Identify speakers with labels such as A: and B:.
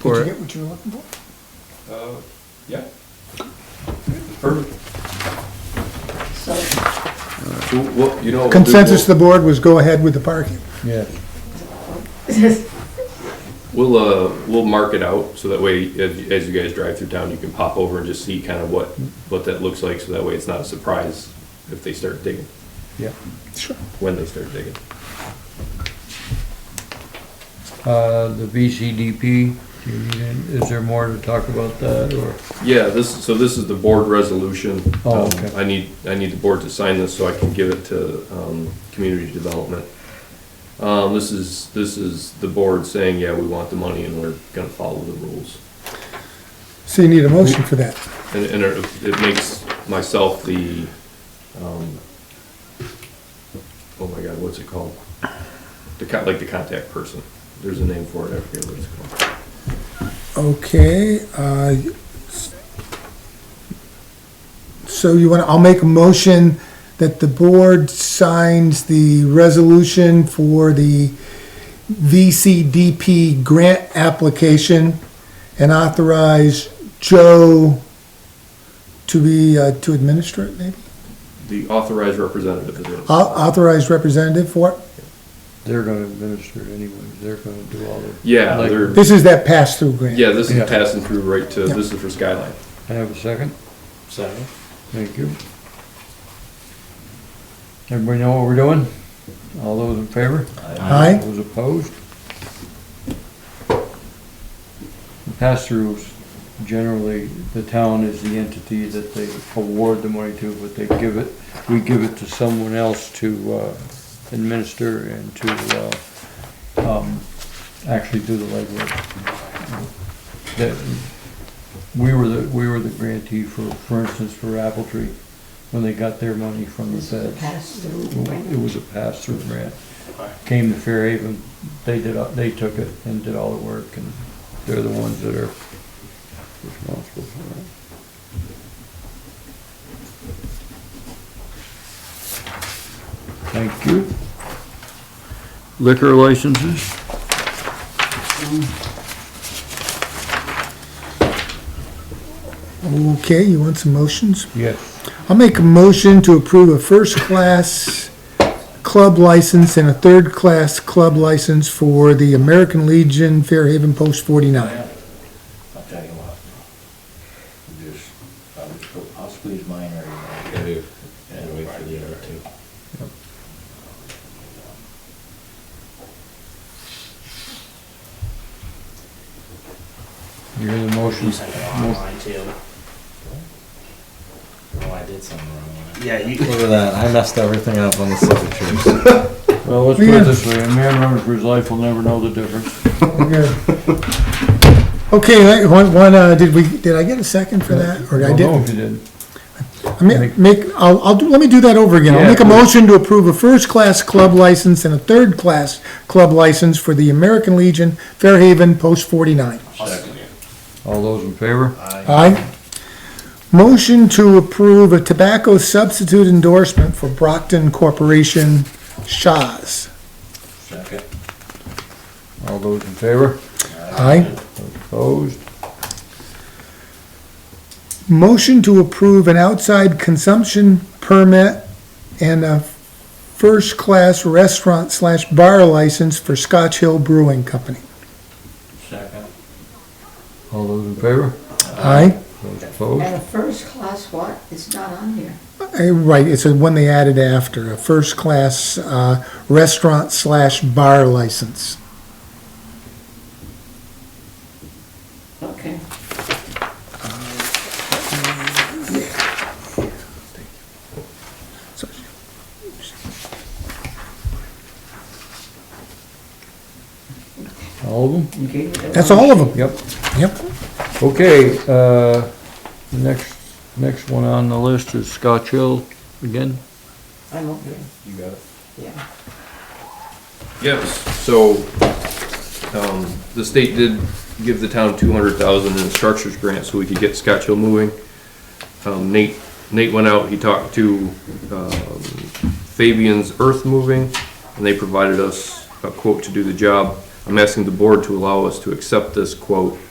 A: Did you
B: for
A: get
B: it.
A: what you were looking for?
C: Uh, yeah. Perfect.
D: So,
C: So what, you know.
A: Consensus of the
C: we'll-
A: board was go ahead with the parking.
E: Yeah,
C: We'll, uh, we'll mark it out, so that way, as, as you guys drive through town, you can pop over and just see kind of what, what that looks like, so that way it's not a surprise if they start digging,
E: yeah.
A: Sure.
C: when they start digging.
E: Uh, the VCDP, do you need any- is there more to talk about that, or?
C: Yeah, this, so this is the board resolution.
E: Oh,
C: Um,
E: okay.
C: I need, I need the board to sign this so I can give it to, um, community development. Um, this is, this is the board saying, yeah, we want the money and we're gonna follow the rules.
A: So you need a motion for that.
C: And, and it it makes myself the, um, oh my God, what's it called? The con, like the contact person. There's a name for it, I forget what it's called.
A: Okay, uh, so you want, to? I'll make a motion that the board signs the resolution for the VCDP grant application and authorize Joe to be, uh, to administer it, maybe?
C: The authorized representative is it.
A: Au- Authorized representative for it?
E: They're gonna administer it anyway, they're gonna do all the.
C: Yeah,
E: Like-
C: they're,
A: This is that pass-through grant.
C: yeah, this
E: Yeah.
C: is passing through right to,
A: Yeah.
C: this is for Skyline.
E: Can I have a second?
F: Second.
E: Thank you. Everybody know what we're doing? All those in favor?
A: Aye.
E: Those opposed? The Pass-throughs, generally, the town is the entity that they award the money to, but they give it, we give it to someone else to uh, administer and to uh, um, actually do the legwork. That, we were the, we were the grantee for, for instance, for Apple Tree, when they got their money from the
D: this is a
E: feds.
D: pass-through.
E: It was a pass-through grant. Came to Fairhaven, they did, they took it and did all the work, and they're the ones that are responsible for it. Thank you.
B: Liquor licenses?
A: Okay, you want some motions?
E: Yes.
A: I'll make a motion to approve a first-class club license and a third-class club license for the American Legion Fairhaven Post 49.
F: I'll tell you what. Just, I'll just go- I'll squeeze mine right in. And wait for the other two.
E: You hear the motion?
F: You sent it online too. Oh, I did something wrong. Yeah, you.
G: Look at that, I messed everything up on the signatures.
E: Well, let's put it this way, a man running for his life will never know the difference.
A: Okay, Okay, I- one, one, uh, did we, did I get a second for that? Or I
E: Don't
A: didn't?
E: know if you did.
A: I mean, make, I'll, I'll, do- let me do that over again. I'll
E: Yeah,
A: make a
E: please.
A: motion to approve a first-class club license and a third-class club license for the American Legion Fairhaven Post 49.
E: All those in favor?
A: Aye. Motion to approve a tobacco substitute endorsement for Brockton Corporation Shaw's.
F: Second.
E: All those in favor?
A: Aye.
E: Opposed?
A: Motion to approve an outside consumption permit and a first-class restaurant slash bar license for Scotch Hill Brewing Company.
F: Second.
E: All those in favor?
A: Aye.
E: Those opposed?
D: And a first-class what? It's not on here.
A: Uh, Right, it's the one they added after, a first-class uh, restaurant slash bar license.
D: Okay.
E: All of them?
D: You gave me the
A: That's
D: wrong-
A: all of them.
E: Yep.
A: Yep.
E: Okay, uh, next, next one on the list is Scotch Hill again.
D: I'm okay,
C: You got it.
D: yeah.
C: Yes, so, um, the state did give the town two hundred thousand in a structures grant so we could get Scotch Hill moving. Um, Nate, Nate went out, he talked to, um, Fabian's Earth Moving, and they provided us a quote to do the job. I'm asking the board to allow us to accept this quote